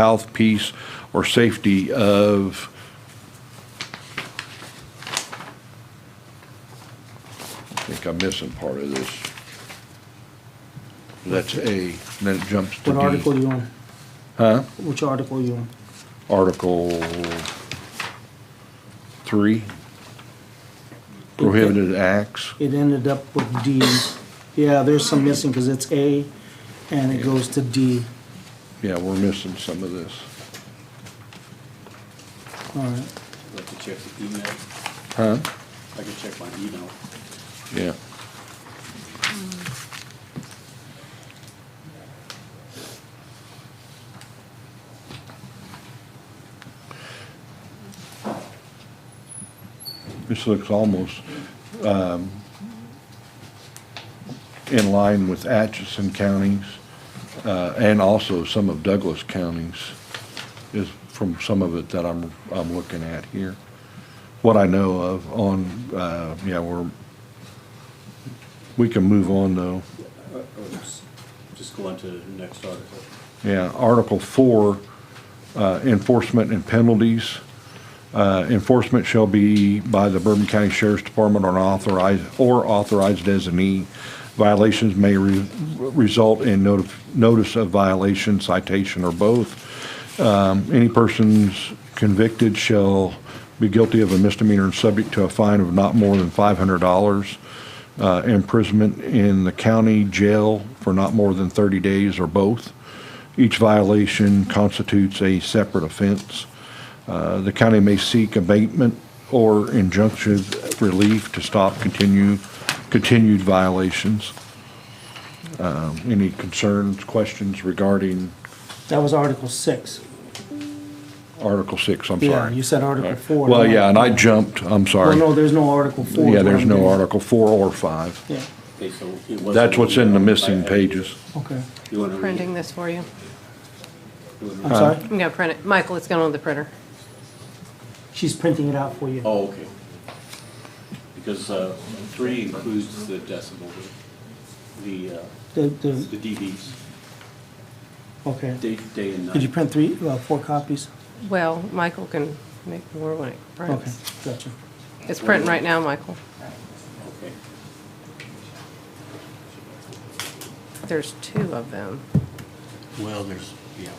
health, peace, or safety of I think I'm missing part of this. That's A, and then it jumps What article to D. you on? Huh? Which article you on? Article three, prohibited acts. It ended up with D. Yeah, there's some missing because it's A and it goes to D. Yeah, we're missing some of this. All right. Like to check the email, Huh? I can check my email. Yeah. This looks almost um, in line with Atchison counties uh, and also some of Douglas counties is from some of it that I'm, I'm looking at here. What I know of on, uh, yeah, we're we can move on, though. Uh, or just- Just go on to the next article. Yeah, Article Four, uh, enforcement and penalties. Uh, Enforcement shall be by the Bourbon County Sheriff's Department on authorized, or authorized designee. Violations may re- result in notif- notice of violation, citation, or both. Um, Any persons convicted shall be guilty of a misdemeanor and subject to a fine of not more than $500, uh, imprisonment in the county jail for not more than 30 days or both. Each violation constitutes a separate offense. Uh, The county may seek abatement or injunction relief to stop continue, continued violations. Um, Any concerns, questions regarding That was Article six. Article 6? I'm sorry. Yeah, you said Article four. Well, yeah, and I jumped, I'm Well, sorry. no, there's no Article four. is Yeah, what there's I'm no doing. Article 4 or 5. Yeah, Okay, so it was. That's what's in the missing pages. okay. You want to read printing it? this for you. You wanna I'm Uh, read it? sorry? I'm gonna print it. Michael, it's going on the printer. She's printing it out for you. Oh, okay. Because uh, three includes the decibel, the, uh, The, the the, dBs, okay. day, day and night. Did you print three, uh, four copies? Well, Michael can make more when it Okay, prints. gotcha. It's printing right now, Michael. Okay. There's two of them. Well, there's, yeah.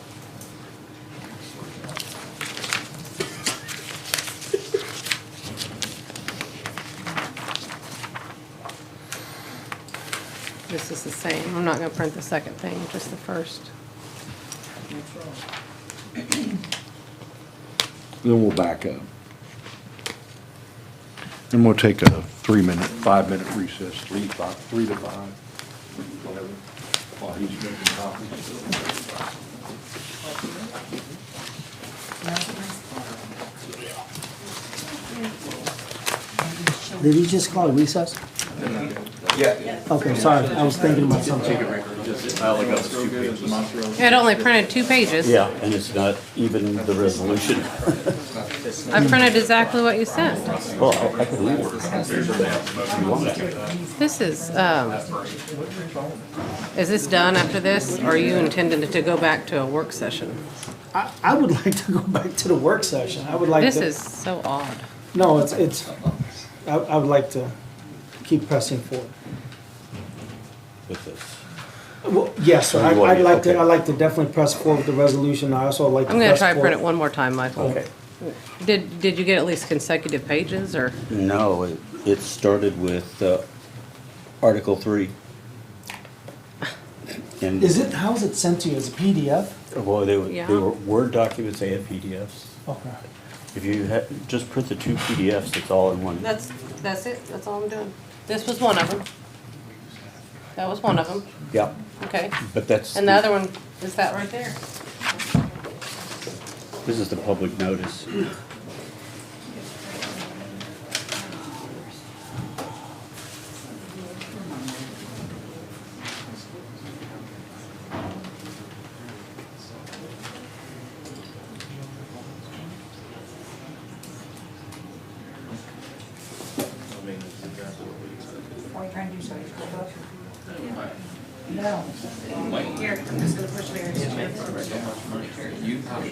This is the same. I'm not gonna print the second thing, just the first. Then we'll back up. And we'll take a three-minute, five-minute recess, three, five, three to five, whatever, while he's making copies. Did he just call it recess? Yeah. Okay, sorry, I was thinking about something. I only got two pages. It only printed two pages. Yeah, and it's not even the resolution. I printed exactly what you sent. Well, Oh, I can leave it. This is, um, is this done after this? Or are you intending to go back to a work session? I, I would like to go back to the work session. I would like to. This is so odd. No, it's, it's, I, I would like to keep pressing forward. with this. Well, yes, sir, I- You want I'd it, like to, okay. I'd like to definitely press forward with the resolution, I also like to I'm gonna press try forward. to print it one more time, Michael. Okay. Did, did you get at least consecutive pages or? No, it, it started with, uh, Article three. And, Is it, how's it sent to you, as a PDF? well, they were, they Yeah. were Word documents, they had PDFs. Okay. If you had, just print the two PDFs, it's all in one. That's, that's it, that's all I'm doing. This was one of them. That was one of them, Yeah, okay. but that's. And the other one is that right there. This is the public notice. What are you trying to do, so you scroll up? No. Here, I'm just gonna push Mary's chair forward.